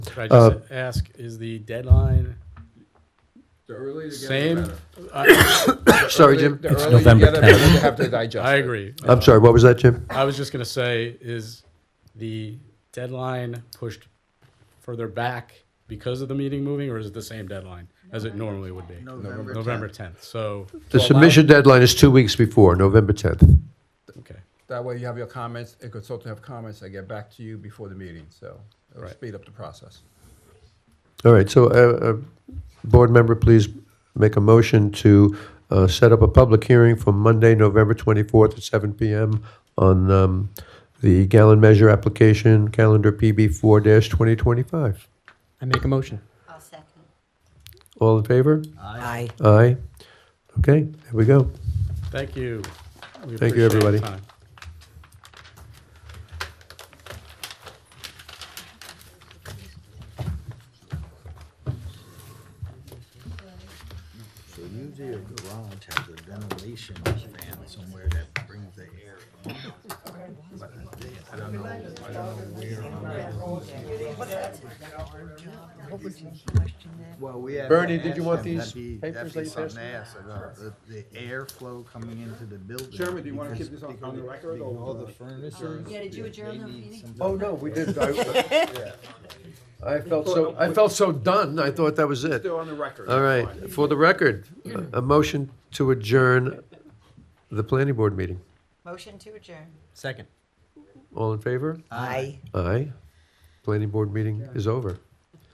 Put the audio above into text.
Could I just Uh, ask, is the deadline? The earlier you get, Same? the better. I Sorry, Early- Jim. The It's earlier you November get it, the better 10th. you have to digest. I it. agree. I'm sorry, what was that, Jim? I was just gonna say, is the deadline pushed further back because of the meeting moving, or is it the same deadline as it normally would be? November November tenth, so, The submission deadline is two weeks before, November 10th. okay, That way you have your comments, a consultant have comments, they get back to you before the meeting, so it'll Right. speed up the process. All right, so uh, uh, board member, please make a motion to uh, set up a public hearing for Monday, November 24th at 7 PM on um, the gallon measure application, calendar PB 4-2025. I make a motion. I'll second. All in favor? Aye. Aye. Okay, there we go. thank you. We Thank you, appreciate the everybody. time. So usually a garage has a ventilation fan somewhere that brings the air in. But I think- I don't know, I don't know where. What would you question that? Well, we have. Bernie, did you want these papers That'd that be you something to passed ask about, the, the airflow coming into the building. Chairman, do you wanna because- keep this on- because on the it- record, because or- All the furnaces. Yeah, did you adjourn the they need meeting? some- Oh, no, we did. I I felt so, I felt so done, I thought that was it. Still on the record. All right, for the record, a a motion to adjourn the planning board meeting. Motion to adjourn. Second. All in favor? Aye. Aye. Planning board meeting is over.